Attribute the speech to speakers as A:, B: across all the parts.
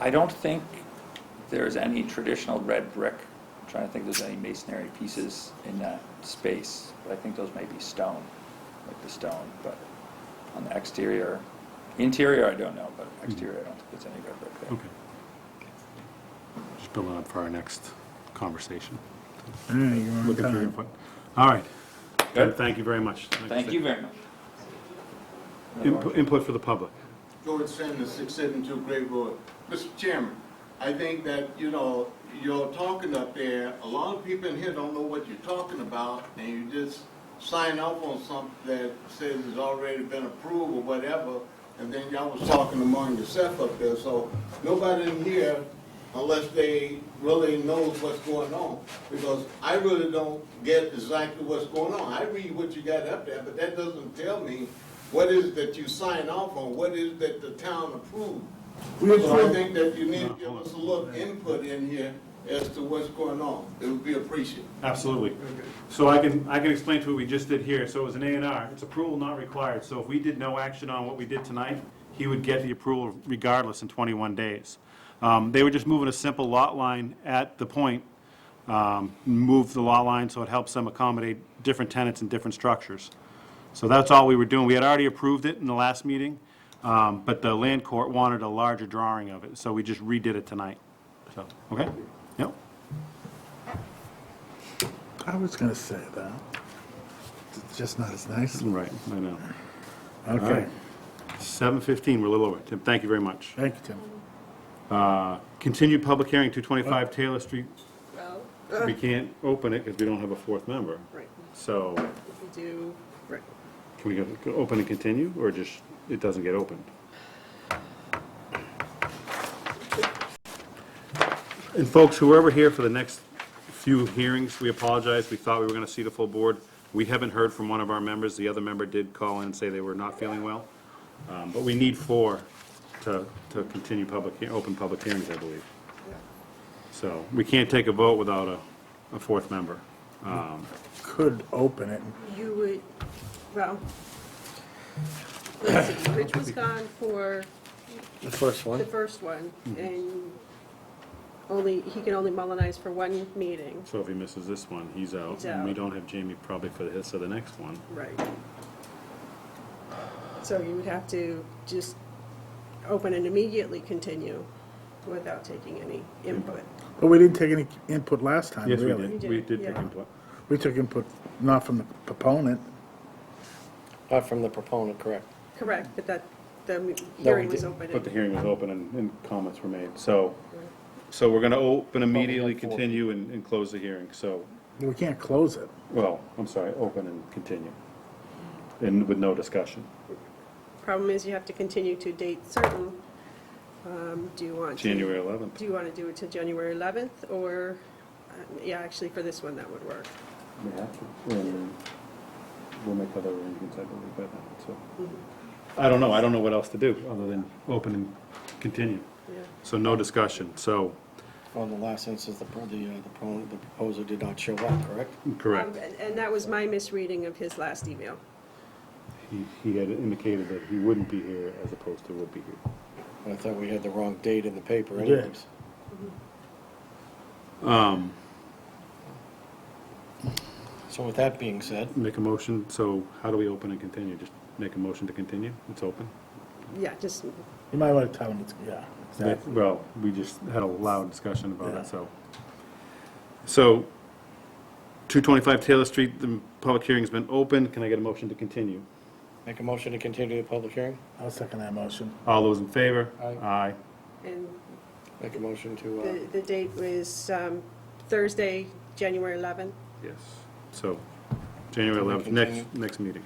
A: I don't think there's any traditional red brick. I'm trying to think if there's any masonry pieces in that space, but I think those may be stone, like the stone, but on the exterior, interior, I don't know, but exterior, I don't think there's any red brick there.
B: Okay. Just building up for our next conversation.
C: All right, you're on
B: Looking for your
C: time.
B: input. All right.
A: Good.
B: Thank you very much.
A: Thank you very much.
B: Input input for the public.
D: George Sanders, 672 Great Road. Mr. Chairman, I think that, you know, you're talking up there, a lot of people in here don't know what you're talking about, and you just sign up on something that says it's already been approved or whatever, and then y'all was talking among yourself up there, so nobody in here, unless they really knows what's going on, because I really don't get exactly what's going on. I read what you got up there, but that doesn't tell me what is it that you sign off on, what is it that the town approved.
C: We
D: So I
C: approve-
D: think that you need to give us a little input in here as to what's going on. It would be appreciated.
B: Absolutely. So I can, I can explain to you what we just did here. So it was an A and R. It's approval not required. So if we did no action on what we did tonight, he would get the approval regardless in 21 days. Um, They were just moving a simple lot line at the point, um, move the lot line so it helps them accommodate different tenants and different structures. So that's all we were doing. We had already approved it in the last meeting, um, but the land court wanted a larger drawing of it, so we just redid it tonight. So, okay? Yep.
C: I was gonna say that. It's just not as nice.
B: Right, I know.
C: Okay,
B: right. Seven fifteen, we're a little over. Tim, thank you very much.
C: thank you, Tim.
B: Uh, Continued public hearing, two twenty-five Taylor Street. We can't open it because we don't have a fourth member.
E: Right,
B: So
E: we do, right.
B: can we go- go open and continue, or just, it doesn't get opened? And folks, whoever here for the next few hearings, we apologize. We thought we were going to see the full board. We haven't heard from one of our members. The other member did call in and say they were not feeling well. Um, But we need four to, to continue public, hea- open public hearings, I believe. So we can't take a vote without a, a fourth member. Um,
C: Could open it.
E: You would, well, let's see, Rich was gone for
C: The first
E: the first one, and only, he can only mullinize for one meeting.
B: So if he misses this one, he's out.
E: He's
B: And we
E: out.
B: don't have Jamie probably for the, so the next one.
E: Right. So you would have to just open and immediately continue without taking any input.
C: But we didn't take any input last time,
B: Yes, we
C: really.
B: did.
E: You
B: We
E: did,
B: did take
E: yeah.
B: input.
C: We took input, not from the proponent.
F: Not Uh, from the proponent, correct.
E: Correct, but that, the hearing was
F: didn't.
E: open.
B: But the hearing was open and, and comments were made. So, so we're gonna open immediately,
F: four.
B: continue and, and close the hearing. So,
C: We can't close it.
B: well, I'm sorry, open and continue. And with no discussion.
E: Problem is, you have to continue to date certain. Um, Do you want to?
B: January eleventh.
E: Do you want to do it till January 11th, or, uh, yeah, actually, for this one, that would work.
B: We have to, and we'll make other arrangements, I believe, by then, so. I don't know, I don't know what else to do, other than open and continue.
E: Yeah.
B: So no discussion, so,
F: On the last instance, the, pro- the, uh, the proponent, the proposer did not show up, correct?
B: correct.
E: Um, and- And that was my misreading of his last email.
B: He, he had indicated that he wouldn't be here as opposed to would be here.
F: I thought we had the wrong date in the paper
C: did.
F: anyways.
B: Um,
F: So with that being said,
B: make a motion, so how do we open and continue? Just make a motion to continue? It's open?
E: Yeah, just,
C: You might want to tell them, it's- yeah, exactly.
B: Well, we just had a loud discussion about it, so. So, two twenty-five Taylor Street, the public hearing's been open. Can I get a motion to continue?
F: make a motion to continue the public hearing?
C: I'll second that motion.
B: All those in favor?
F: Aye.
B: Aye.
E: and
F: Make a motion to, uh,
E: the, the date was um, Thursday, January 11th.
B: Yes. So, January
F: we
B: eleventh,
F: continue?
B: next, next meeting.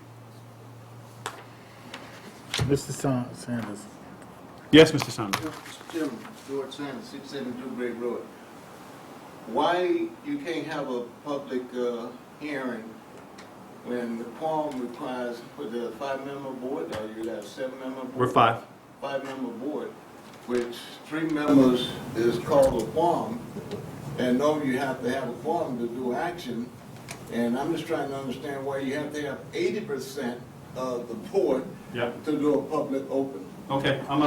C: Mr. Sa- Sanders,
B: Yes, Mr. Sanders?
D: Mr. Chairman, George Sanders, 672 Great Road. Why you can't have a public uh, hearing when the quorum requires for the five-member board, or you have seven-member board?
B: We're five.
D: Five-member board, which three members is called a quorum, and no, you have to have a quorum to do action. And I'm just trying to understand why you have to have 80% of the board
B: Yeah.
D: to do a public open.
B: Okay, I'm